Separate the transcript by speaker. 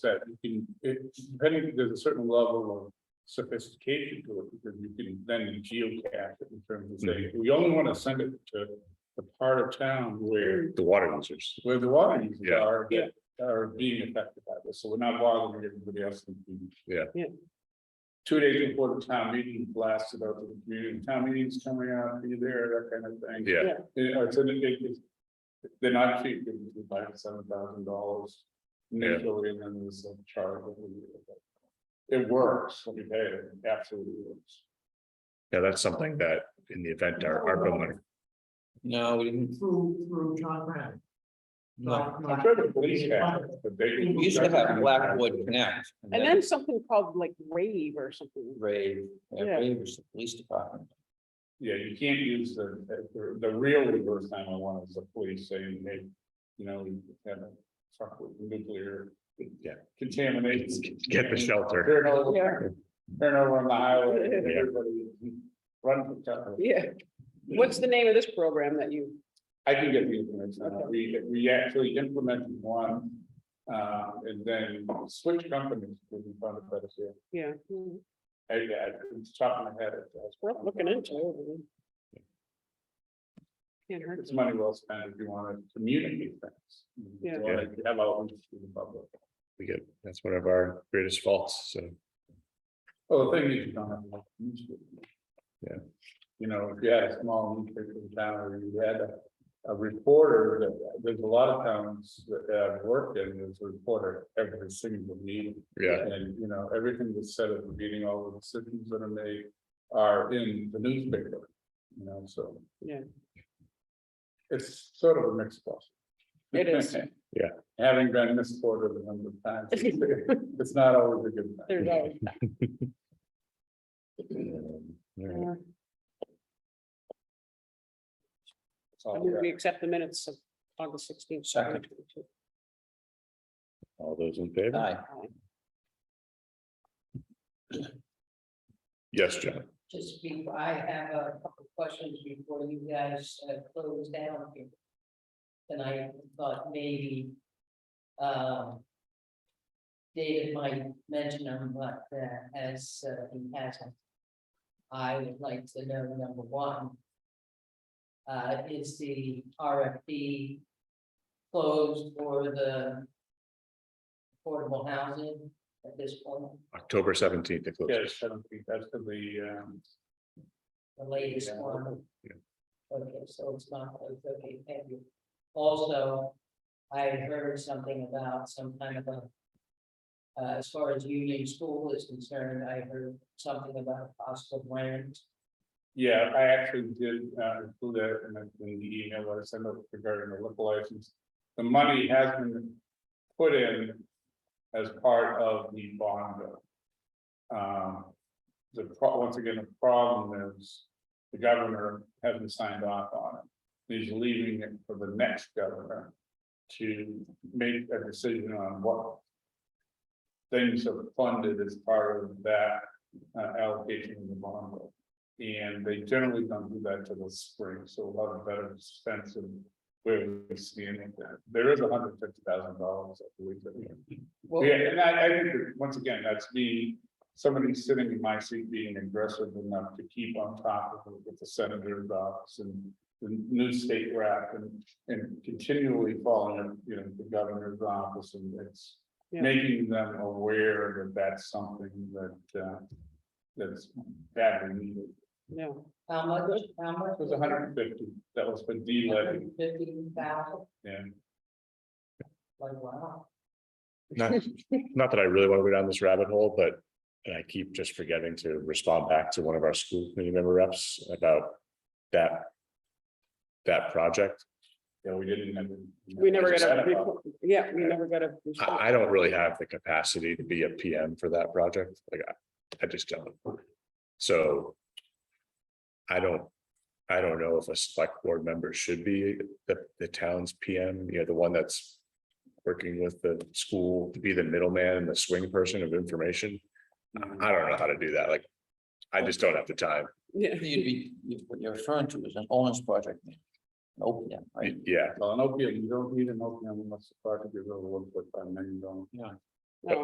Speaker 1: said, you can, it, depending, there's a certain level of sophistication to it, because you can then geocache it in terms of
Speaker 2: Mm-hmm.
Speaker 1: saying, we only want to send it to the part of town where,
Speaker 2: the water users.
Speaker 1: where the water users
Speaker 2: Yeah.
Speaker 1: are, that are being affected by this, so we're not bothering everybody else. in the community.
Speaker 2: Yeah.
Speaker 3: Yeah.
Speaker 1: Two days before the town meeting blasted out to the community, town meeting's coming out, be there, that kind of thing.
Speaker 2: Yeah,
Speaker 1: Yeah, it's an, it, it's, they're not cheap, they can buy seven thousand dollars.
Speaker 2: Yeah.
Speaker 1: Initially, and then there's a charge. that we- It works, when you pay it, it absolutely works.
Speaker 2: yeah, that's something that in the event our, our building,
Speaker 4: No, we didn't.
Speaker 3: Through, through John Brown.
Speaker 4: No.
Speaker 3: Not-
Speaker 1: I'm
Speaker 3: not-
Speaker 1: sure the police have, it, but they.
Speaker 4: We used to have Blackwood Connect.
Speaker 5: And then something called like rave or something.
Speaker 4: Rave, yeah,
Speaker 5: Yeah.
Speaker 4: Rave was the police department.
Speaker 1: Yeah, you can't use the, the, the real reverse nine one one is the police saying, hey, you know, we have a truck with nuclear.
Speaker 2: Yeah.
Speaker 1: Contamination.
Speaker 2: get the shelter.
Speaker 1: Turn
Speaker 5: Yeah.
Speaker 1: over, turn over on the highway, and everybody run for cover.
Speaker 5: Yeah. What's the name of this program that you,
Speaker 1: I can get the information, Uh, we, we actually implemented one, uh, and then switch companies, because we found a better deal.
Speaker 5: yeah, hmm,
Speaker 1: I, I, it's top of my head. it does.
Speaker 5: we're looking into it. Can't hurt.
Speaker 1: It's money well spent if you want to communicate things. You
Speaker 5: Yeah.
Speaker 1: wanna Have outreach to the public.
Speaker 2: We get, that's one of our greatest faults, so.
Speaker 1: Well, the thing is, you don't have. enough newspaper.
Speaker 2: Yeah.
Speaker 1: You know, if you had a small newspaper in town, or you had a, a reporter, that, there's a lot of towns that I've worked in, there's a reporter every single meeting.
Speaker 2: Yeah,
Speaker 1: And, you know, everything that's said at the meeting, all the decisions that are made are in the newspaper, you know, so.
Speaker 5: Yeah.
Speaker 1: It's sort of a mixed bag.
Speaker 5: It is.
Speaker 2: Yeah.
Speaker 1: Having been misquoted a number of times, it's not always a good thing.
Speaker 5: There's always.
Speaker 2: Alright,
Speaker 5: uh,
Speaker 1: It's all
Speaker 5: I
Speaker 1: good.
Speaker 5: move We accept the minutes of August sixteenth.
Speaker 4: Second.
Speaker 2: all those in favor?
Speaker 4: Aye.
Speaker 2: Yes, John.
Speaker 6: Just before, I have a couple of questions before you guys uh, close down here. And I thought maybe, um. David might mention on what uh, has, uh, he hasn't. I would like to know, number one. Uh, is the RFP closed for the affordable housing at this point,
Speaker 2: October seventeenth, it
Speaker 1: Yeah,
Speaker 2: closes.
Speaker 1: seventeenth, that's to the, um,
Speaker 6: the latest
Speaker 1: Yeah.
Speaker 6: one?
Speaker 2: Yeah.
Speaker 6: Okay, so it's not, it's okay, thank you. Also, I heard something about some kind of a. Uh, as far as Union School is concerned, I heard something about cost of land.
Speaker 1: yeah, I actually did, uh, include that in the, in the email that I sent out regarding the liquor license. The money has been put in as part of the bond bill. Um, the pro, once again, the problem is the governor hasn't signed off on it. He's leaving it for the next governor to make a decision on what things are funded as part of that uh, allocation in the bond bill. And they generally don't do that till the spring, so a lot of better sense of where we stand with that. There is hundred fifty thousand dollars, I believe, that we
Speaker 6: Well,
Speaker 1: yeah, and I, I think, that, once again, that's me, somebody sitting in my seat being aggressive enough to keep on top of it with the senator's office and. The new state rep and, and continually following, you know, the governor's office and it's.
Speaker 5: Yeah.
Speaker 1: Making them aware that that's something that, uh, that's badly needed.
Speaker 5: No,
Speaker 6: How much, how much?
Speaker 1: It was hundred and fifty, that was for D-levy,
Speaker 6: Fifty thousand,
Speaker 1: yeah.
Speaker 6: like, wow.
Speaker 2: Not, not that I really want to go down this rabbit hole, but and I keep just forgetting to respond back to one of our school committee member reps about that. That project.
Speaker 1: Yeah, we didn't. have it.
Speaker 5: we never
Speaker 2: It's
Speaker 5: got a,
Speaker 1: Senate office.
Speaker 5: report- yeah, we never got a. response.
Speaker 2: I, I don't really have the capacity to be a PM for that project, like, I, I just don't. So. I don't, I don't know if a select board member should be the, the town's PM, you know, the one that's. Working with the school to be the middleman and the swing person of information. I don't know how to do that, like, I just don't have the time,
Speaker 5: Yeah.
Speaker 4: You'd be, you- what you're referring to is an Owens project. Open, yeah, right?
Speaker 2: yeah.
Speaker 1: Well, an opiate, you don't need an opium unless the project is over one point five million dollars.
Speaker 4: Yeah.